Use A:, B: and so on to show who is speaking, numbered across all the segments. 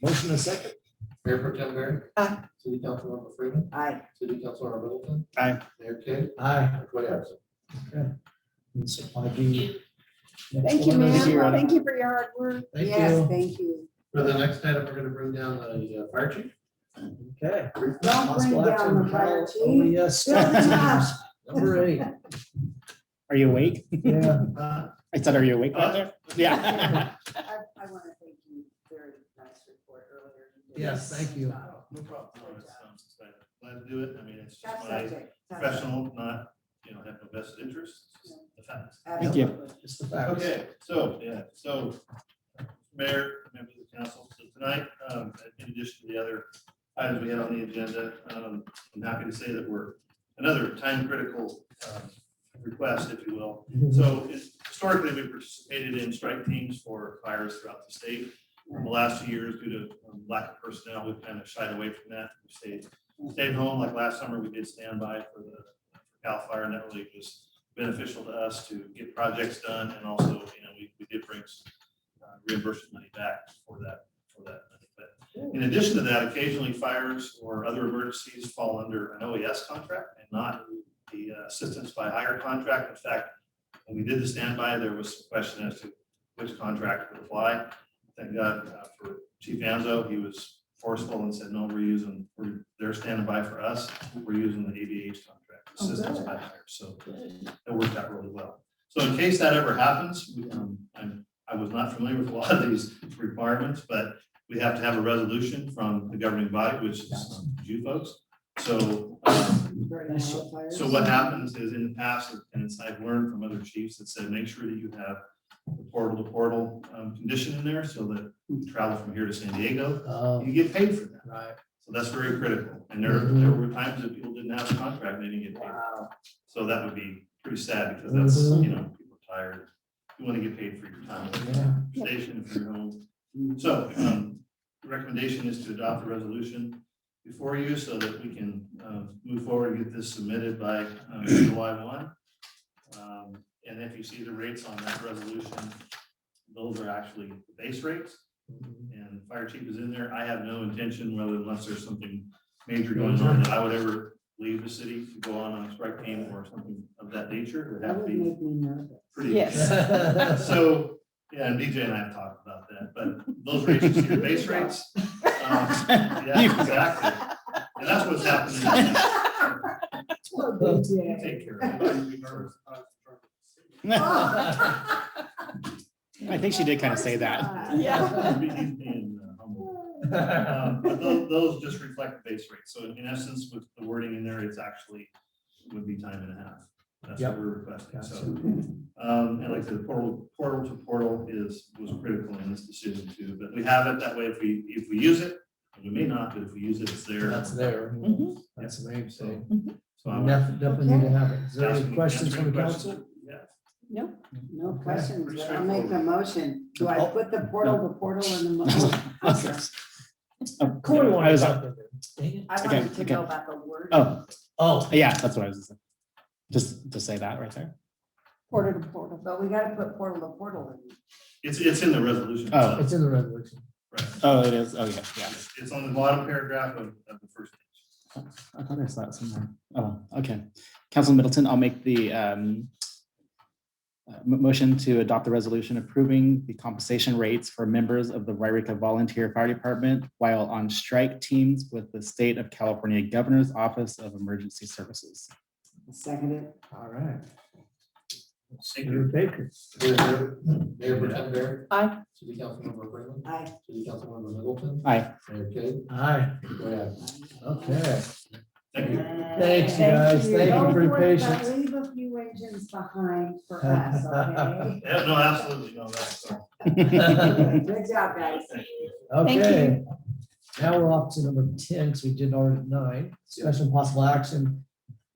A: Motion and second.
B: Mayor Pro Tem Mary.
C: Aye.
B: City Councilmember Freeman.
C: Aye.
B: City Councilmember Middleton.
A: Aye.
B: Mayor Kay.
A: Aye.
B: Everybody absent.
A: Supply B.
D: Thank you,
A: Next one.
D: ma'am. Thank you for your hard work.
A: Thank
C: Yes,
A: you.
C: thank you.
B: For the next item, we're gonna bring down the uh, fire chief.
A: Okay.
C: Don't bring
A: Possible action
C: down
A: on
C: the fire
A: Kyle. Oh,
C: chief.
A: yes.
C: Build him up.
A: Number eight.
E: Are you awake?
A: Yeah.
B: Uh,
E: I said, are you awake down there? Yeah.
C: I, I want to thank you. Very nice report earlier. You did
A: Yes, thank you.
B: No
C: No,
B: problem.
C: it's, um,
B: Glad to do it. I mean, it's
C: Tough subject. tough
B: professional, not, you know, have no vested interest,
C: It's just
B: the facts.
E: Thank you.
C: Absolutely.
A: It's the facts.
B: Okay, so, yeah, so, Mayor, members of the council, so tonight, um, in addition to the other items we had on the agenda, um, I'm happy to say that we're another time critical, um, request, if you will,
A: Mhm.
B: so it's- historically, we participated in strike teams for fires throughout the state. In the last few years, due to um, lack of personnel, we've kind of shied away from that. We stayed, stayed home. Like last summer, we did standby for the Cal Fire, and that really was beneficial to us to get projects done. And also, you know, we, we did bring some uh, reimbursement money back for that, for that. money. But in addition to that, occasionally fires or other emergencies fall under an OES contract and not the uh, assistance by hire contract. In fact, when we did the standby, there was some question as to which contract would apply. Thank God uh, for Chief Anzo, he was forceful and said, no, we're using, we're, they're standing by for us, we're using the ABH contract.
C: Oh, good.
B: assistance by hire." So it worked out really well. So in case that ever happens, we, um, I'm, I was not familiar with a lot of these requirements, but we have to have a resolution from the governing body, which is um, you folks. So um,
C: Very nice fire.
B: so what happens is in the past, and it's, I've learned from other chiefs that said, make sure that you have the portal to portal um, condition in there so that you travel from here to San Diego,
A: Um,
B: you get paid for that.
A: Right.
B: So that's very critical. And there, there were times that people didn't have a contract, they didn't get paid.
C: Wow.
B: So that would be pretty sad because that's,
A: Mhm.
B: you know, people are tired. You want to get paid for your time
A: Yeah.
B: station if you're home. So, um, the recommendation is to adopt the resolution before you so that we can, uh, move forward and get this submitted by, um, July one. Um, and if you see the rates on that resolution, those are actually the base rates and fire chief is in there. I have no intention, whether unless there's something major going on, that I would ever leave the city to go on a strike team or something of that nature. It would
C: That
B: have to
C: would
B: be
C: make me nervous.
B: pretty.
D: Yes.
B: So, yeah, and BJ and I have talked about that, but those rates, you see the base rates. um, Yeah, exactly. And that's what's happening.
C: Poor
B: You
C: BJ.
B: Take care. of
C: Oh.
E: I think she did kind of say that.
D: Yeah.
B: it. Being, uh, humble. Um, But tho- those just reflect the base rate. So in essence, with the wording in there, it's actually would be time and a half. That's what
A: Yep.
B: we're requesting. So,
A: Gotcha.
B: um, and like I said, portal, portal to portal is, was critical in this decision too. But we have it that way if we, if we use it, and we may not, but if we use it, it's there.
A: That's there.
C: Mm-hmm.
D: Mhm.
A: That's the main thing.
B: So I would
A: Def- Definitely need to have it. Is there
B: ask
A: any
B: you-
A: questions
B: answer
A: from
B: any
A: the
B: questions.
A: council?
B: Yeah.
C: No, no
A: Okay.
C: questions.
B: Pretty
C: but I'll make a
B: straightforward.
C: motion. Do I
A: Oh.
C: put the portal, the portal in the motion?
E: Oh,
A: Corey
E: I
A: wanted
E: was-
A: something. Dang it.
C: I
E: Okay,
C: wanted to
E: okay.
C: know about the word.
E: Oh,
A: Oh,
E: yeah, that's what I was, just to say that right there.
D: Porter to portal.
C: But we gotta put portal to portal in.
B: It's, it's in the resolution.
E: Oh.
B: itself,
A: it's in the resolution.
B: right.
E: Oh, it is. Oh, yeah, yeah.
B: It's it's on the bottom paragraph of, of the first page.
E: I thought I saw it somewhere. Oh, okay. Council Middleton, I'll make the um, uh, mo- motion to adopt the resolution approving the compensation rates for members of the Wairika Volunteer Fire Department while on strike teams with the State of California Governor's Office of Emergency Services.
C: Second it.
A: All right.
B: Thank you.
A: Senator Baker.
B: Mayor Pretend Bear.
D: Aye.
B: City Councilmember Freeman.
C: Aye.
B: City Councilmember Middleton.
E: Aye.
B: Mayor Kay.
A: Aye.
B: Go ahead.
A: Okay.
B: Thank you.
A: Thanks, you guys. Thank you
C: Don't
A: for your
C: worry about-
A: patience.
C: Leave a few engines behind for us, okay?
B: Yeah, no, absolutely, no, that's, uh,
C: Good job, guys.
B: thank you.
A: Okay. Now we're off to number ten, because we did already nine, special possible action.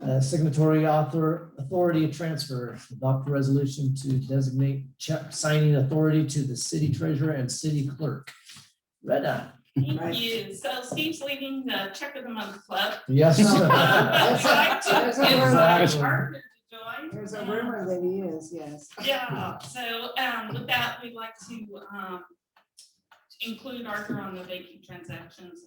A: uh, Signatory author, authority transfer, adopt a resolution to designate check signing authority to the city treasurer and city clerk. Retta.
C: Right.
F: Thank you. So Steve's leading the check of the month club.
A: Yes.
F: I tried
C: There's a
F: to get my
A: rumor.
F: partner to join.
C: There's a
F: and-
C: rumor that he is, yes.
F: Yeah, so um, with that, we'd like to um, include Arthur on the banking transactions